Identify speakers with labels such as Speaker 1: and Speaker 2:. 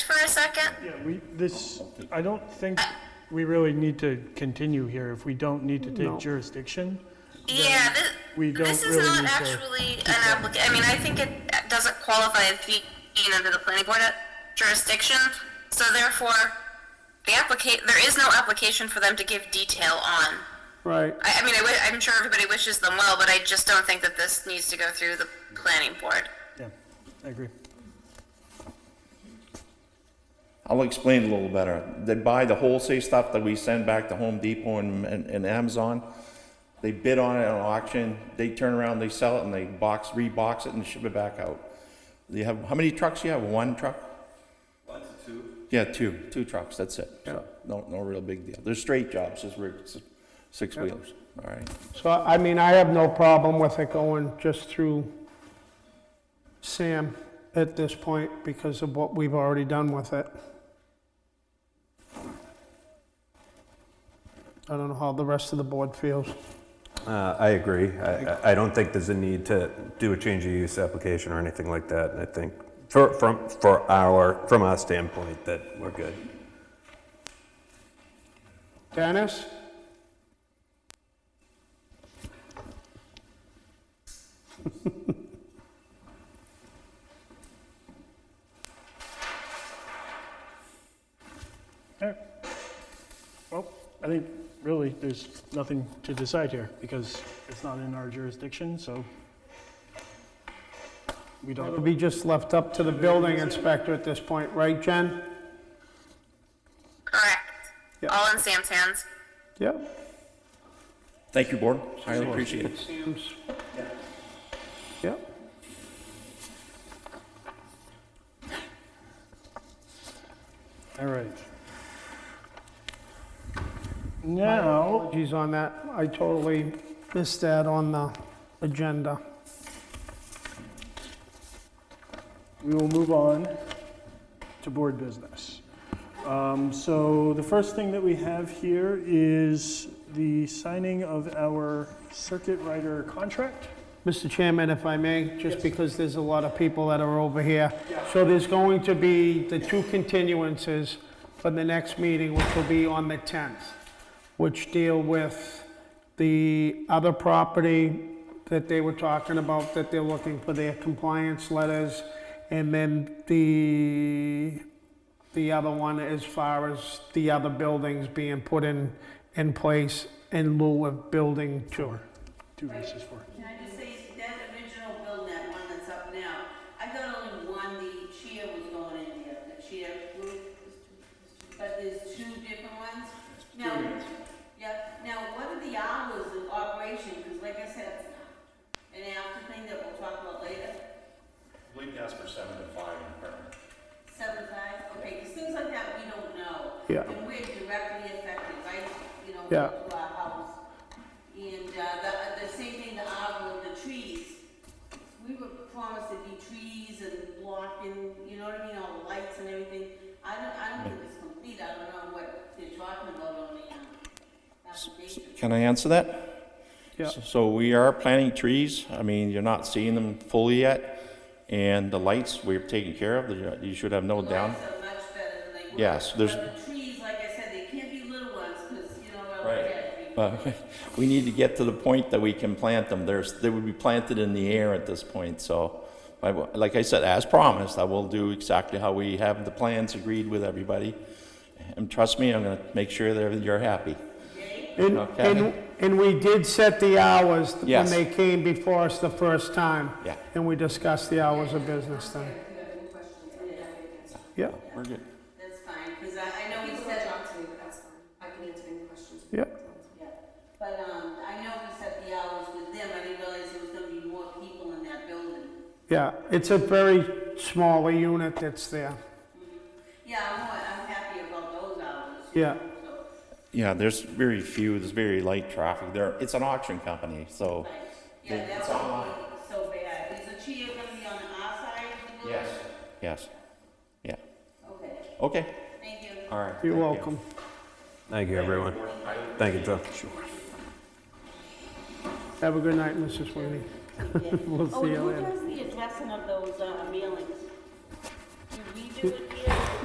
Speaker 1: for a second?
Speaker 2: Yeah, we, this, I don't think we really need to continue here if we don't need to take jurisdiction.
Speaker 1: Yeah, this,
Speaker 2: we don't
Speaker 1: this is
Speaker 2: really
Speaker 1: not
Speaker 2: need to-
Speaker 1: actually an application. I mean, I think it doesn't qualify as being under the planning board jurisdiction. So therefore, the applica, there is no application for them to give detail on.
Speaker 3: Right,
Speaker 1: I, I mean, I wi- I'm sure everybody wishes them well, but I just don't think that this needs to go through the planning board.
Speaker 2: Yeah, I agree.
Speaker 4: I'll explain a little better. They buy the wholesale stuff that we send back to Home Depot and, and, and Amazon. They bid on it at an auction. They turn around, they sell it, and they box, rebox it, and ship it back out. You have how many trucks? You have one truck? One to two. Yeah, two, two trucks. That's it. So, no, no real big deal. They're straight jobs, just we're six wheelers. All right.
Speaker 3: so I mean, I have no problem with it going just through Sam at this point because of what we've already done with it. I don't know how the rest of the board feels.
Speaker 5: Uh, I agree. I, I- I don't think there's a need to do a change of use application or anything like that. And I think for, from, for our, from our standpoint, that we're good.
Speaker 3: Dennis?
Speaker 2: All right. Well, I think really there's nothing to decide here because it's not in our jurisdiction, so we
Speaker 3: It'll
Speaker 2: don't,
Speaker 3: be just left up to the building inspector at this point, right, Jen?
Speaker 1: Correct.
Speaker 3: Yeah.
Speaker 1: All in Sam's hands.
Speaker 3: Yep.
Speaker 4: Thank you, board. Highly appreciate it.
Speaker 3: Sam's. Yep.
Speaker 2: all right. Now,
Speaker 3: Apologies on that. I totally missed that on the agenda.
Speaker 2: we will move on to board business. Um, So the first thing that we have here is the signing of our circuit rider contract.
Speaker 3: Mr. Chairman, if I may, just because there's a lot of people that are over here. So there's going to be the two continuances for the next meeting, which will be on the 10th, which deal with the other property that they were talking about, that they're looking for their compliance letters. And then the the other one as far as the other buildings being put in, in place in lieu of building two.
Speaker 2: Two verses for.
Speaker 6: Can I just say, that original building, that one that's up now, I got only one, the chia was going in there, the chia group. But there's two different ones? Now, yeah, now what are the hours of operation? Because like I said, an after thing that we'll talk about later.
Speaker 4: Blink asked for seven to five in permit.
Speaker 6: Seven times, okay, because things like that, we don't know.
Speaker 3: Yeah.
Speaker 6: And we're directly affected, right, you know,
Speaker 3: Yeah.
Speaker 6: to our house. And, uh, the, the same thing, the arbor, the trees. We were promised there'd be trees and blocking, you know what I mean, all the lights and everything. I don't, I don't think it's complete, I don't know what they're talking about on the, um, application.
Speaker 4: Can I answer that?
Speaker 3: Yeah.
Speaker 4: So we are planting trees. I mean, you're not seeing them fully yet. And the lights, we've taken care of. You- You should have no down.
Speaker 6: Lights are much better than they were.
Speaker 4: Yes, there's-
Speaker 6: But the trees, like I said, they can't be little ones, because, you know, I
Speaker 4: Right.
Speaker 6: look at it.
Speaker 4: But we need to get to the point that we can plant them. There's, they would be planted in the air at this point, so. I will- Like I said, as promised, I will do exactly how we have the plans agreed with everybody. And trust me, I'm gonna make sure that you're happy.
Speaker 3: And,
Speaker 4: Okay.
Speaker 3: and, and we did set the hours when
Speaker 4: Yes.
Speaker 3: they came before us the first time.
Speaker 4: Yeah.
Speaker 3: And we discussed the hours of business then. Yeah,
Speaker 4: We're good.
Speaker 6: That's fine, because I, I know we said,
Speaker 7: talk to me, but that's fine. I can answer any questions.
Speaker 3: yeah,
Speaker 6: yeah, but, um, I know we set the hours with them, I didn't realize there was gonna be more people in that building.
Speaker 3: yeah. It's a very small unit that's there.
Speaker 6: Yeah, I'm, more- I'm happy about those hours. you
Speaker 3: Yeah,
Speaker 6: know, so,
Speaker 4: Yeah, there's very few, there's very light traffic there. It's an auction company, so.
Speaker 6: like, Yeah, that would be so bad, is the chia gonna be on our side of the building?
Speaker 4: Yes, yeah.
Speaker 6: Okay,
Speaker 4: Okay,
Speaker 6: thank you.
Speaker 4: all right.
Speaker 3: you're
Speaker 4: thank you.
Speaker 3: welcome.
Speaker 5: Thank you, everyone. Thank you, John.
Speaker 3: Have a good night, Mrs. Sweeney. We'll
Speaker 6: Oh,
Speaker 3: see you
Speaker 6: and who
Speaker 3: later.
Speaker 6: does the addressing of those, uh, mailings? Do we do it?